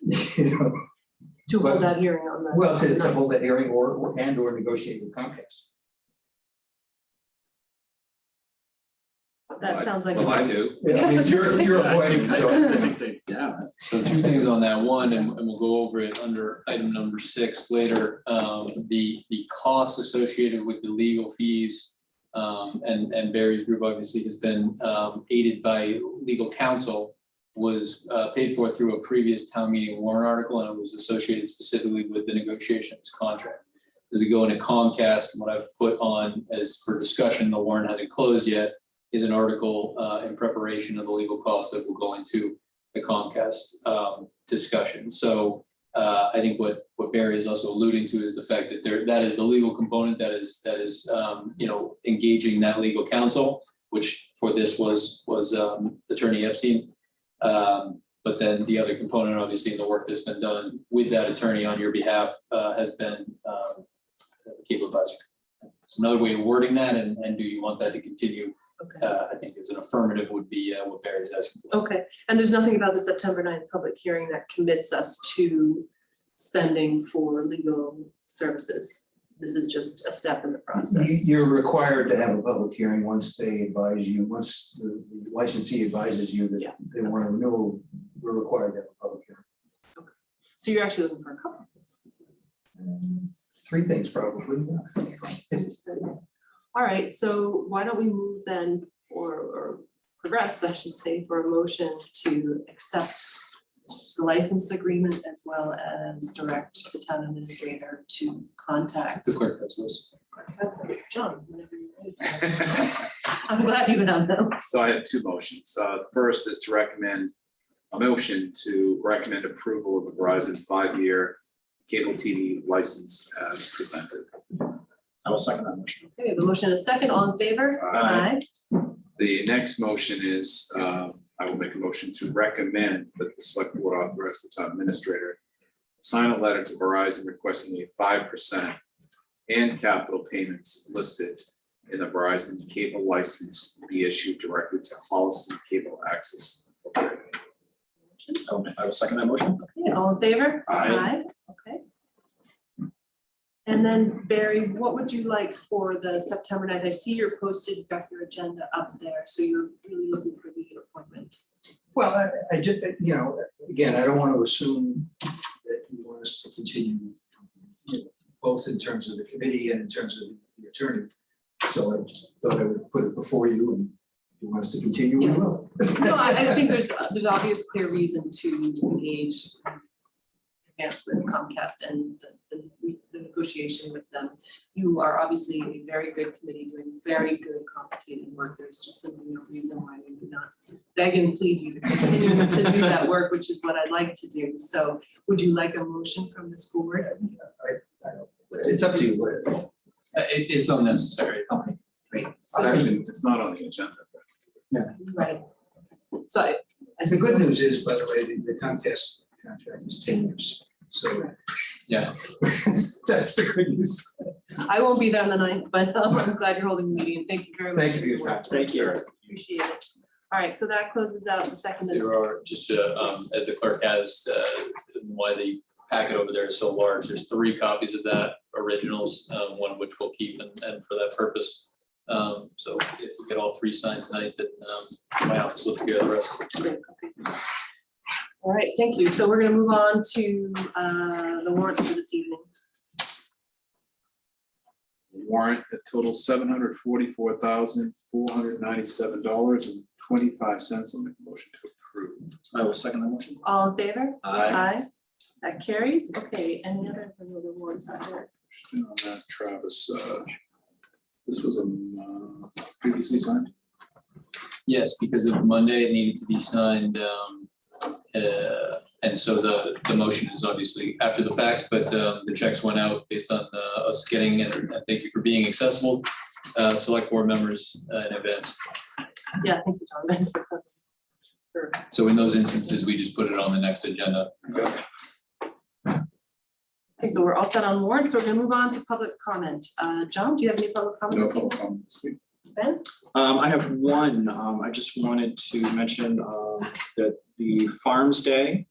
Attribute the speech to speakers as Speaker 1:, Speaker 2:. Speaker 1: you know,
Speaker 2: to hold
Speaker 1: But-
Speaker 2: that hearing on the.
Speaker 1: Well, to, to hold that hearing or, or- and or negotiate with Comcast.
Speaker 2: That sounds like. a-
Speaker 3: Well, I do.
Speaker 1: Yeah, I mean, you're, you're avoiding,
Speaker 3: I
Speaker 1: so,
Speaker 3: think they- yeah. So two things on that, one, and, and we'll go over it under item number six later, um, the, the costs associated with the legal fees. Um, and, and Barry's group obviously has been, um, aided by legal counsel. Was, uh, paid for through a previous town meeting warrant article, and it was associated specifically with the negotiations contract. As we go into Comcast, what I've put on as for discussion, the warrant hasn't closed yet is an article uh, in preparation of the legal costs that will go into the Comcast um, discussion. So uh, I think what what Barry is also alluding to is the fact that there, that is the legal component that is, that is, um, you know, engaging that legal counsel, which for this was, was um, Attorney Epstein. Um, But then the other component, obviously, in the work that's been done with that attorney on your behalf uh, has been um, the cable advisor. So another way of wording that, and and do you want that to continue
Speaker 2: Okay.
Speaker 3: uh, I think is an affirmative would be uh, what Barry's asking for.
Speaker 2: Okay, and there's nothing about the September 9th public hearing that commits us to spending for legal services. This is just a step in the
Speaker 1: you-
Speaker 2: process.
Speaker 1: you're required to have a public hearing once they advise you, once the the licensee advises you that
Speaker 2: Yeah.
Speaker 1: they want to renew, we're required to have a public hearing.
Speaker 2: So you're actually looking for a couple of things.
Speaker 1: Three things probably.
Speaker 2: Understood. All right, so why don't we move then, or, or progress, I should say, for a motion to accept the license agreement as well as direct the town administrator to contact.
Speaker 3: The clerk has those.
Speaker 2: Cousins, John, whenever you're ready, sir. I'm glad you have them.
Speaker 4: So I have two motions. Uh, first is to recommend a motion to recommend approval of the Verizon five-year cable TV license as presented. I will second that motion.
Speaker 2: Okay, we have a motion and a second, all in favor?
Speaker 4: Aye. The next motion is, um, I will make a motion to recommend that the select board authorize the town administrator sign a letter to Verizon requesting a five percent and capital payments listed in the Verizon cable license be issued directly to Holliston Cable Access. Incorporated.
Speaker 5: I will- I will second that motion.
Speaker 2: Okay, all in favor?
Speaker 4: Aye.
Speaker 2: Okay. And then Barry, what would you like for the September 9th? I see you're posted, you've got your agenda up there, so you're really looking for the appointment.
Speaker 1: Well, I, I just, you know, again, I don't want to assume that you want us to continue, you know, both in terms of the committee and in terms of the attorney. So I just thought I would put it before you and if you want us to continue, we will.
Speaker 2: No, I, I think there's, there's obvious clear reason to engage advance with Comcast and the- the, the negotiation with them. You are obviously a very good committee doing very good complicated work. There's just simply no reason why we would not beg and plead you to continue to do that work, which is what I'd like to do. So would you like a motion from this board?
Speaker 1: I- I don't- It's up to you. what-
Speaker 3: Uh, It is unnecessary.
Speaker 2: Okay, great.
Speaker 4: It's actually, it's not on the agenda.
Speaker 2: Right. So I. I
Speaker 1: The good news is, by the way, the- the Comcast contract is ten years, so.
Speaker 3: Yeah.
Speaker 1: That's the good news.
Speaker 2: I won't be there on the ninth, but um, I'm glad you're holding the meeting. Thank you very much.
Speaker 1: Thank you for your time. Thank you.
Speaker 2: Appreciate it. All right, so that closes out the second. and-
Speaker 3: There are just, uh, um, uh, the clerk has, uh, why the packet over there is so large. There's three copies of that originals, um, one of which we'll keep and, and for that purpose. Um, So if we get all three signed tonight, then um, my office will take care of the rest.
Speaker 2: Great, okay. All right, thank you. So we're gonna move on to uh, the warrant for this evening.
Speaker 4: Warrant that totals seven hundred forty-four thousand, four hundred ninety-seven dollars and twenty-five cents. I'll make a motion to approve.
Speaker 5: I will second that motion.
Speaker 2: All in favor?
Speaker 5: Aye.
Speaker 2: That carries. Okay, any other any other warrants out there?
Speaker 4: Question on that, Travis, uh, this was um, uh, previously signed.
Speaker 3: Yes, because of Monday, it needed to be signed. um, uh, And so the, the motion is obviously after the fact, but um, the checks went out based on uh, us getting, and and thank you for being accessible, uh, select board members uh, in advance.
Speaker 2: Yeah, thank you, John. Sure.
Speaker 3: So in those instances, we just put it on the next agenda.
Speaker 2: Okay, so we're all set on warrants. We're gonna move on to public comment. Uh, John, do you have any public comment
Speaker 4: No
Speaker 2: this evening?
Speaker 4: public comment this week.
Speaker 2: Ben?
Speaker 5: Um, I have one, um, I just wanted to mention, um, that the Farms Day